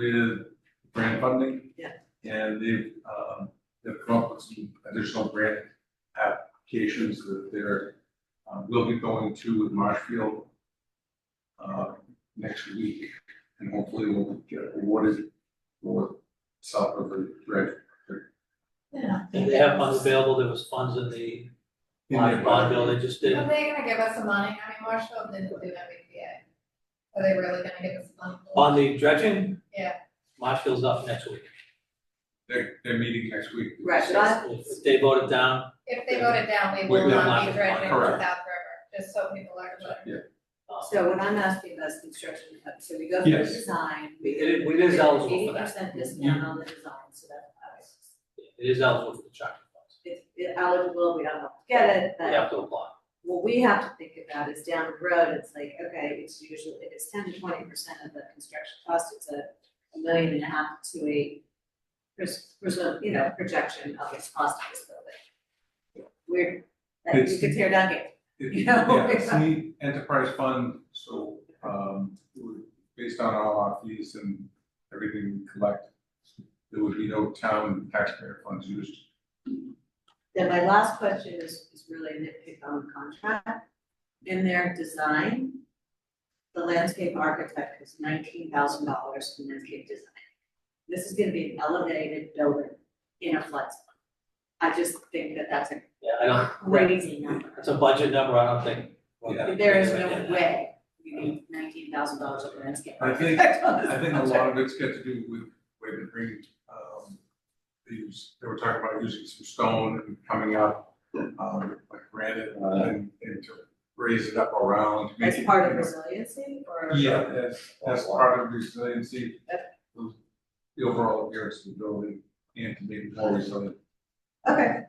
with grant funding. Yeah. And they've, um, they've come up with some additional grant applications that they're, um, will be going to with Marshfield uh, next week, and hopefully we'll get awarded for south of the dredge. Yeah. If they have funds available, there was funds in the bond bond bill, they just Are did, they gonna give us some money? I mean, Marshall didn't do MBTA. Are they really gonna give us money? on the dredging. Yeah. Marshfield's up next week. They're, they're meeting next week. Right, but I, If if they voted down, If they voted down, we We've will been not be lacking dredging money. South Correct. River, just so people are aware. uh, so what I'm asking about is construction, cut. so we go through the Yes. design, it we get. is, it is eligible Eighty for that, Mm-hmm. percent discount on the design, so that applies. it is eligible for the chapter funds, It's it's eligible, we don't have to get it, they but have to apply. what we have to think about is down the road, it's like, okay, it's usually, if it's ten to twenty percent of the construction cost, it's a a million and a half to a pres- presu- you know, projection of its cost of this building. We're, that you It's- could tear down gate. It- Yeah. Yeah, it's an enterprise fund, so, um, it would- based on all our fees and everything we collect, there would be no town taxpayer funds used. Then my last question is, is really a nitpick on the contract. In their design, the landscape architect was nineteen thousand dollars in landscape design. This is gonna be an elevated building in a flood zone. I just think that that's a Yeah, I don't, crazy number. it's a budget number, I don't think. we're gonna- There is no way you need nineteen thousand dollars of landscape I think- architect on this I think a contract. lot of it's got to do with where they bring, um, they use, they were talking about using some stone and coming up, um, like granite and, and to raise it up around. to make That's it, part you of know, resiliency or? Yeah, that's, that's part of resiliency, the overall appearance of the building and to make it more resilient. Okay,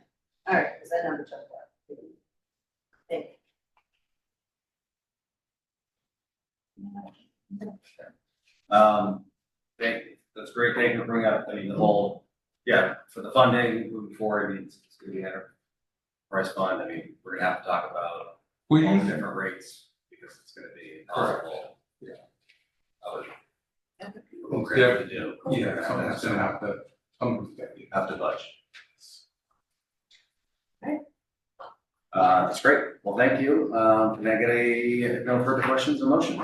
all right, because I know the job. well. Thank Um, thank, that's great, thank you for bringing up, I mean, the whole, yeah, for the funding moving forward, I mean, it's it's gonna be our price fund, I mean, we're gonna have to talk about We, all the different rates, because it's gonna be impossible. Yeah. I would, you. we're gonna have to do. yeah, something's gonna have to, something's gonna be. Have to budget. Okay. Uh, that's great, well, thank you, um, can I get a, no further questions, a motion?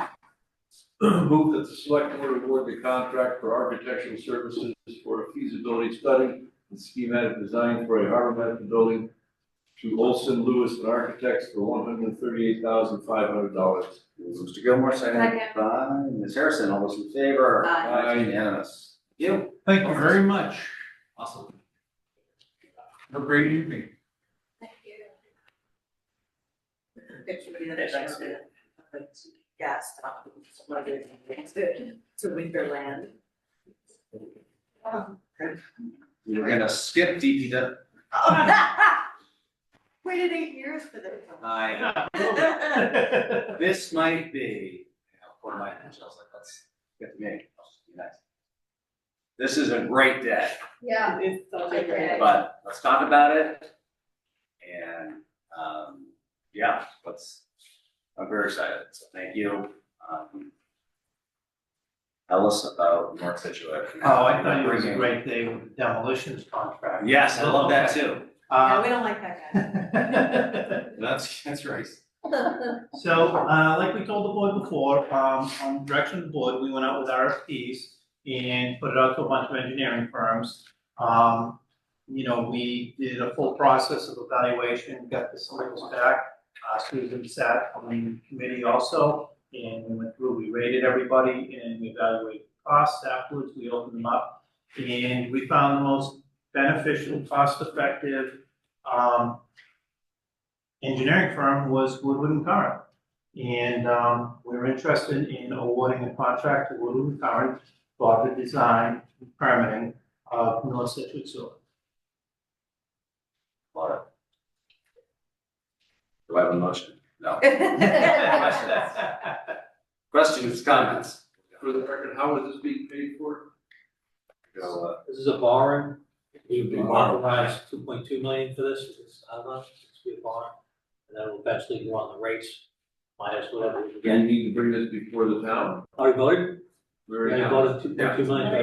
Move that the select board award the contract for architectural services for a feasibility study and schematic design for a harbor medical building to Olson Lewis and Architects for one hundred and thirty-eight thousand five hundred dollars. Mr. Gilmore, second Second. by Ms. Harrison, all those in favor? Aye. Aye. Unanimous. You. Thank you very much. Awesome. Have a great evening. Thank you. picture of the other Thanks, show, like, Gas stop, one of the things to, to Winterland. We're gonna skip DPW. Waited eight years for this. I, this might be, you know, for my, I was like, let's get the meeting, I'll just be nice. This is a great day, Yeah, It's so I agree. but let's talk about it. And, um, yeah, let's, I'm very excited, so thank you. Um, Tell us about North Situate. Oh, I thought it was a great day with the demolitions contract. Yes, I love that too. Yeah, Uh, we don't like that guy. That's, that's right. So, uh, like we told the board before, um, on direction of the board, we went out with RFPs and put it out to a bunch of engineering firms. Um, you know, we did a full process of evaluation, got the samples back, uh, Susan sat on the committee also. And we went through, we rated everybody and we evaluated costs afterwards, we opened them up. And we found the most beneficial, cost-effective, um, engineering firm was Woodward and Curran. And um, we were interested in awarding a contract to Woodward and Curran for the design and permitting of North Situate Sewer. Love it. Do I have a motion? No. Questions, comments? For the record, how is this being paid for? Go, uh, This is a borrowing, we've Big borrow. authorized two point two million for this, it's, I don't know, it's a borrow. And then we'll eventually go on the rates, minus whatever we Do you get. need to bring this before the town? Are we voting? We're We in. voted two point two million. Yeah.